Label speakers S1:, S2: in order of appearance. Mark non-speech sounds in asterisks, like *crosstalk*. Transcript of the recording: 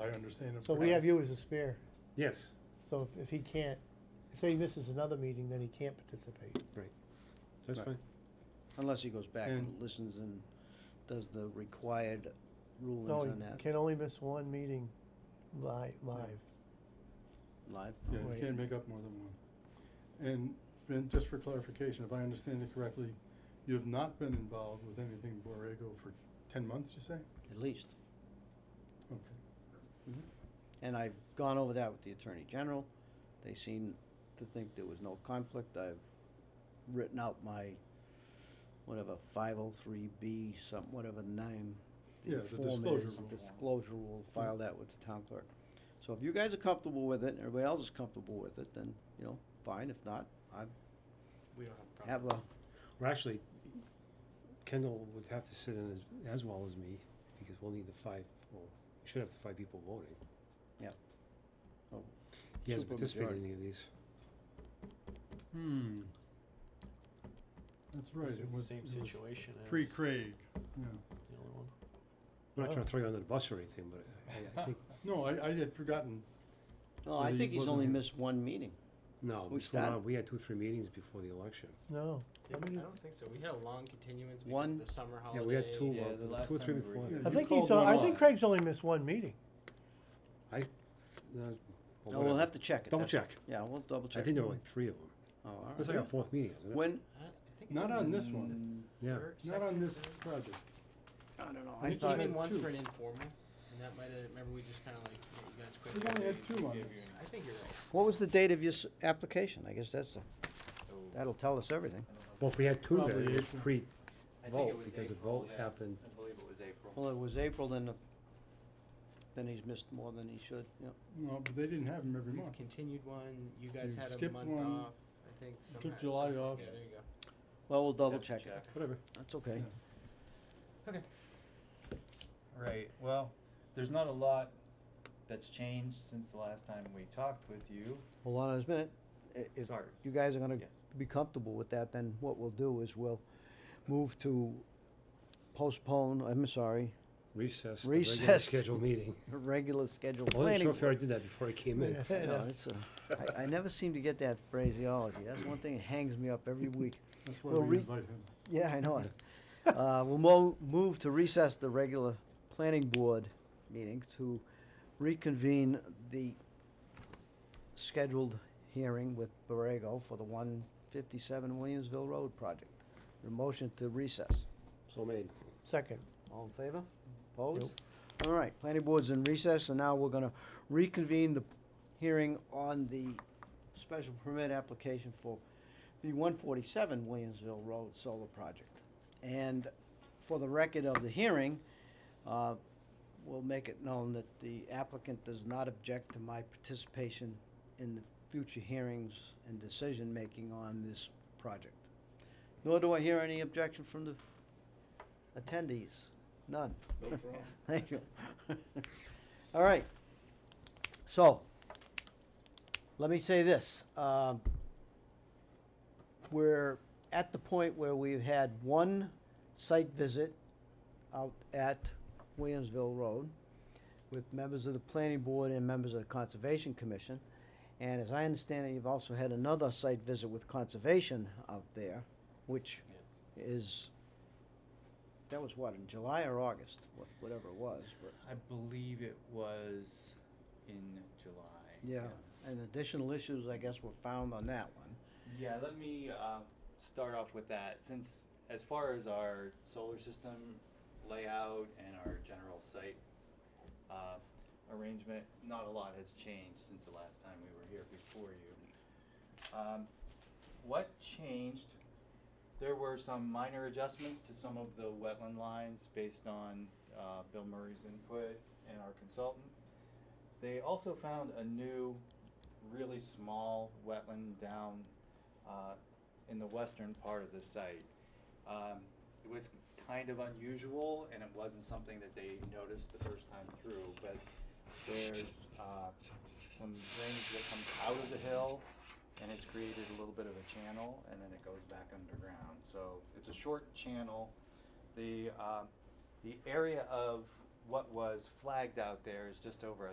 S1: I understand. it
S2: So we have you as a spare,
S3: Yes,
S2: so if- if he can't, say he misses another meeting, then he can't participate.
S3: that's
S4: Right.
S3: fine.
S4: Unless he goes back and
S3: And-
S4: listens and does the required rulings
S2: No,
S4: on
S2: he
S4: that
S2: can only miss one meeting li- live.
S4: live.
S1: Yeah,
S2: Wait.
S1: you can't make up more than one. And Ben, just for clarification, if I understand it correctly, you have not been involved with anything Borrego for ten months, you say?
S4: At least.
S1: Okay.
S4: And I've gone over that with the Attorney General. They seem to think there was no conflict. I've written out my, whatever, five oh three B, some, whatever name.
S1: Yeah, the
S4: form
S1: disclosure
S4: is,
S1: rule.
S4: Disclosure rule, file that with the town clerk. So if you guys are comfortable with it, and everybody else is comfortable with it, then, you know, fine. If not, I
S5: We don't have a problem.
S4: have a,
S3: Or actually, Kendall would have to sit in as, as well as me, because we'll need the five, well, we should have the five people voting.
S4: Yep. Oh,
S3: He hasn't
S4: supermajority.
S3: participated in any of these.
S1: Hmm. That's right,
S5: It's
S1: it
S5: the
S1: was,
S5: Same
S1: it was
S5: situation as.
S1: pre-Craig, yeah.
S5: The only one.
S3: I'm not
S2: Oh.
S3: trying to throw you under the bus or anything, but I, I think,
S1: No, I, I had forgotten,
S4: no, I
S1: Well, he
S4: think he's
S1: wasn't
S4: only
S1: here.
S4: missed one meeting.
S3: no,
S4: We
S3: this went on-
S4: started-
S3: we had two, three meetings before the election.
S2: No,
S5: Yeah,
S2: I
S5: but I
S2: mean,
S5: don't think so. We had a long continuance because
S4: One-
S5: of the summer
S3: Yeah,
S5: holiday.
S3: we had two,
S6: Yeah,
S3: uh,
S6: the last
S3: two or three
S6: time we were
S3: before.
S6: here.
S1: Yeah.
S2: I
S1: You
S2: think
S1: called
S2: he's, on-
S1: one
S2: I think
S1: off.
S2: Craig's only missed one meeting.
S3: No,
S4: No, we'll have to check it.
S3: Double
S4: That's-
S3: check.
S4: Yeah, we'll double
S3: I
S4: check.
S3: think there were like three of them.
S4: Oh, all
S3: It's
S4: right.
S3: like our fourth meeting, isn't it?
S4: When,
S5: I- I think
S1: not
S5: we
S1: on
S5: did
S1: this one,
S5: the
S3: Yeah,
S5: third,
S1: not on
S5: second,
S1: this
S5: third.
S1: project.
S4: I don't
S1: I
S4: know. I
S1: think
S5: We
S4: thought,
S5: came
S1: thought-
S5: in once
S1: Two.
S5: for an informal, and that might have, remember we just kinda like, yeah, you guys
S1: We
S5: quick.
S1: only had two on it.
S5: I think you're right.
S4: what was the date of your s- application? I guess that's, the-
S6: So-
S4: that'll tell us everything.
S3: well, if we had two
S1: Probably
S3: there, it was
S1: April.
S3: pre,
S6: I think
S3: vote,
S6: it was
S3: because the
S6: April,
S3: vote
S6: yeah.
S3: happened-
S6: I believe it was April.
S4: Well, it was April, then, the- then he's missed more than he should, yeah.
S1: No, but they didn't have them every
S5: We've
S1: month.
S5: continued one, you
S1: You
S5: guys had a
S1: skipped
S5: month
S1: one,
S5: off, I think
S1: took
S5: somehow.
S1: July
S5: something-
S1: off.
S5: Yeah, there you go.
S4: Well, we'll double
S6: Have to
S4: check it.
S3: whatever.
S4: That's okay.
S6: Right, well, there's not a lot that's changed since the last time we talked with you.
S4: Hold on just a minute. I- If
S6: Sorry.
S4: you guys are gonna
S6: Yes.
S4: be comfortable with that, then what we'll do is we'll move to postpone, I'm sorry,
S3: Recess the regular
S4: Recessed.
S3: scheduled meeting.
S4: regular scheduled
S3: I wasn't
S4: planning.
S3: sure if I already did that before I came in.
S2: Yeah.
S4: No, it's *laughs* a, I, I never seem to get that phraseology. That's one thing that hangs me up every week.
S1: That's why
S4: Well,
S1: we
S4: re-
S1: invite him.
S4: Yeah, I know it. Uh, we'll mo- move to recess the regular planning board meeting to reconvene the scheduled hearing with Borrego for the one fifty-seven Williamsville Road project. A motion to recess.
S3: So made.
S2: Second.
S4: All in favor? Opposed? All right, planning board's in recess, and now we're gonna reconvene the hearing on the special permit application for the one forty-seven Williamsville Road Solar Project. And for the record of the hearing, uh, we'll make it known that the applicant does not object to my participation in the future hearings and decision-making on this project. Nor do I hear any objection from the attendees. None. *laughs* Thank you. All right. So, let me say this. um, We're at the point where we've had one site visit out at Williamsville Road with members of the planning board and members of the conservation commission. And as I understand it, you've also had another site visit with conservation out there, which
S5: Yes.
S4: is, that was what, in July or August, wha- whatever it was, but.
S6: I believe it was in July. yes.
S4: And additional issues, I guess, were found on that one.
S6: Yeah, let me uh, start off with that. Since, as far as our solar system layout and our general site uh, arrangement, not a lot has changed since the last time we were here before you. Um, what changed? There were some minor adjustments to some of the wetland lines based on uh, Bill Murray's input and our consultant. They also found a new, really small wetland down uh, in the western part of the site. Um, it was kind of unusual, and it wasn't something that they noticed the first time through, but there's uh, some drainage that comes out of the hill, and it's created a little bit of a channel, and then it goes back underground. So it's a short channel. The, uh, the area of what was flagged out there is just over a